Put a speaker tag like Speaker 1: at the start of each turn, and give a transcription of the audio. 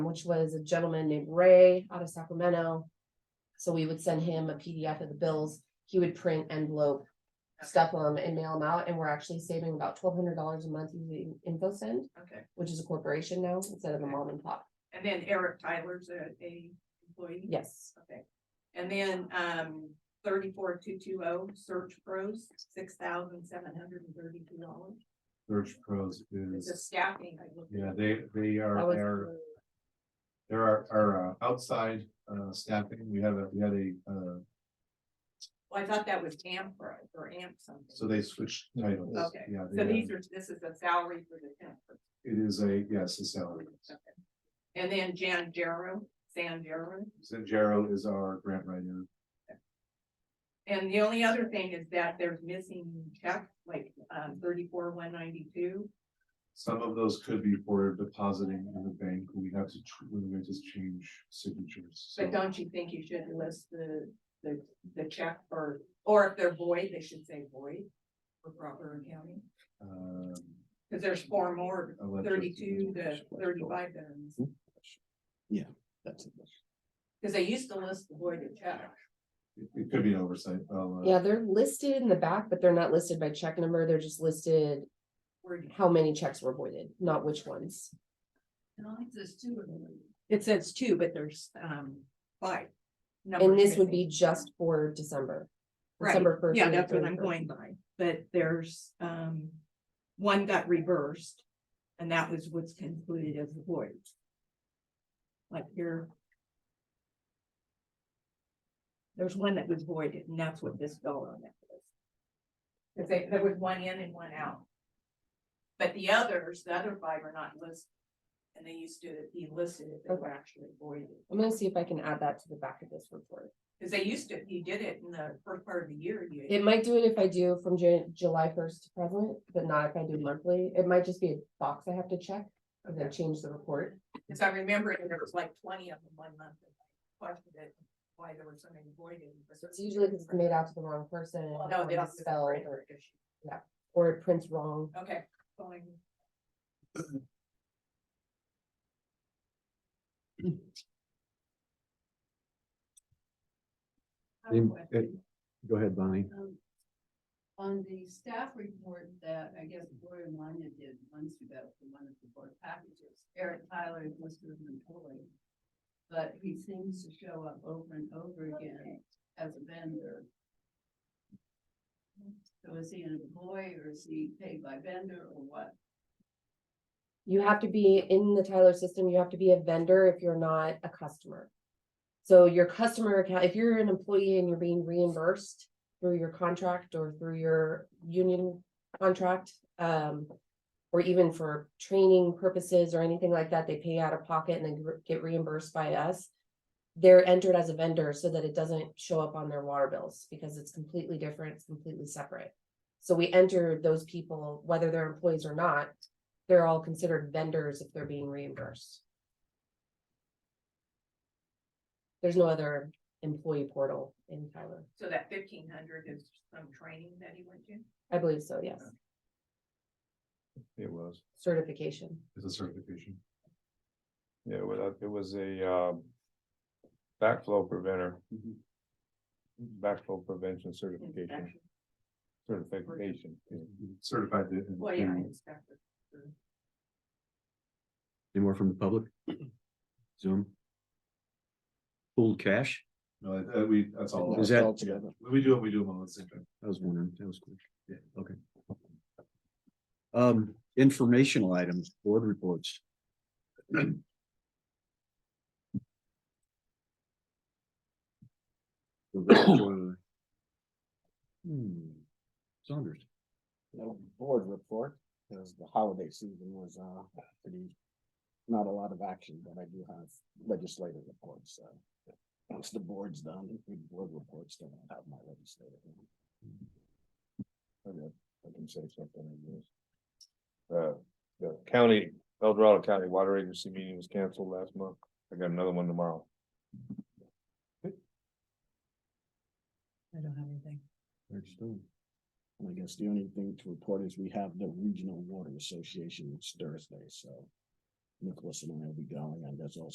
Speaker 1: which was a gentleman named Ray out of Sacramento. So we would send him a PDF of the bills. He would print envelope, stuff them and mail them out. And we're actually saving about twelve hundred dollars a month using InfoSend,
Speaker 2: Okay,
Speaker 1: which is a corporation now instead of a mom and pop.
Speaker 2: and then Eric Tyler's a, a employee?
Speaker 1: Yes.
Speaker 2: Okay, and then, um, thirty-four two two oh, Search Pros, six thousand seven hundred and thirty-two dollars.
Speaker 3: Search Pros
Speaker 2: It's a
Speaker 3: is,
Speaker 2: staffing, I looked.
Speaker 3: yeah, they, they are,
Speaker 1: That was-
Speaker 3: are, there are, are uh, outside, uh, staffing, we have a, we had a, uh,
Speaker 2: Well, I thought that was AMP or, or AMP something.
Speaker 3: so they switched titles.
Speaker 2: Okay,
Speaker 3: Yeah, they
Speaker 2: So
Speaker 3: have-
Speaker 2: these are, this is a salary for the temp. person.
Speaker 3: it is a, yes, a salary.
Speaker 2: And then Jan Jarrow, San Jarrow.
Speaker 3: Zangaro is our grant writer.
Speaker 2: And the only other thing is that there's missing checks, like, um, thirty-four one ninety-two.
Speaker 3: Some of those could be for depositing in the bank, we have to, tr- we have to change signatures.
Speaker 2: But
Speaker 3: so-
Speaker 2: don't you think you should list the, the, the check or, or if they're void, they should say void for proper accounting?
Speaker 3: um,
Speaker 2: Cause there's four more,
Speaker 3: I'll let you-
Speaker 2: thirty-two to thirty-five that are missing.
Speaker 4: That's it.
Speaker 2: Cause they used to list the voided check.
Speaker 3: It it could be an oversight, I'll, uh,
Speaker 1: Yeah, they're listed in the back, but they're not listed by check number. They're just listed
Speaker 2: Where-
Speaker 1: how many checks were voided, not which ones.
Speaker 2: It says two, but there's, um, five.
Speaker 1: And this would be just for December.
Speaker 2: Right,
Speaker 1: December first.
Speaker 2: yeah, that's what I'm going by, but there's, um, one got reversed. And that was what's concluded as a void. Like here. There's one that was voided, and that's what this dollar amount is. Cause they, there was one in and one out. But the others, the other five are not listed. And they used to be listed if they were actually voided.
Speaker 1: I'm gonna see if I can add that to the back of this report.
Speaker 2: Cause they used to, you did it in the first part of the year. you-
Speaker 1: It might do it if I do from Jan- July first to present, but not if I do monthly. It might just be a box I have to check and then change the report.
Speaker 2: Cause I remember there was like twenty of them one month. and I Questioned it, why there were so many voided.
Speaker 1: It's usually 'cause it's made out to the wrong person.
Speaker 2: Well, No,
Speaker 1: or
Speaker 2: they don't.
Speaker 1: misspelled, or- Or it prints wrong.
Speaker 2: Okay. fine.
Speaker 5: I have a question.
Speaker 4: Go ahead, Bonnie.
Speaker 5: Um, On the staff report that I guess Gloria Manya did months ago for one of the board packages, Eric Tyler is listed as an employee. But he seems to show up over and over again as a vendor. So is he an employee or is he paid by vendor or what?
Speaker 1: You have to be in the Tyler system. You have to be a vendor if you're not a customer. So your customer account, if you're an employee and you're being reimbursed through your contract or through your union contract, um. Or even for training purposes or anything like that, they pay out of pocket and then gr- get reimbursed by us. They're entered as a vendor so that it doesn't show up on their water bills because it's completely different, it's completely separate. So we enter those people, whether they're employees or not, they're all considered vendors if they're being reimbursed. There's no other employee portal in Tyler.
Speaker 2: So that fifteen hundred is some training that he went to?
Speaker 1: I believe so, yes.
Speaker 6: It was,
Speaker 1: Certification.
Speaker 3: it's a certification.
Speaker 6: yeah, it was, it was a, uh, backflow preventer. Backflow prevention certification,
Speaker 2: Mm-hmm. Inspection.
Speaker 6: certification.
Speaker 3: Certified. in-
Speaker 2: Well, yeah,
Speaker 3: in-
Speaker 2: inspector.
Speaker 4: Any more from the public? Zoom? Pooled cash?
Speaker 3: No, that- that we, that's all.
Speaker 4: Is that-
Speaker 3: When We do it, we do them all at the same time.
Speaker 4: I was wondering, that was quick. Yeah, okay. Um, informational items, board reports. Hmm, Saunders.
Speaker 7: little board report, because the holiday season was, uh, pretty, not a lot of action, but I do have legislative reports, so. Once the board's done, if the board reports, then I'll have my legislative. one.
Speaker 6: Okay, I can say something, I guess. Uh, the county, El Dorado County Water Agency meeting was canceled last month, I got another one tomorrow.
Speaker 5: I don't have anything.
Speaker 4: Eric Stone.
Speaker 7: And I guess the only thing to report is we have the Regional Water Association, it's Thursday, so. Nicholas and I will be going, and there's also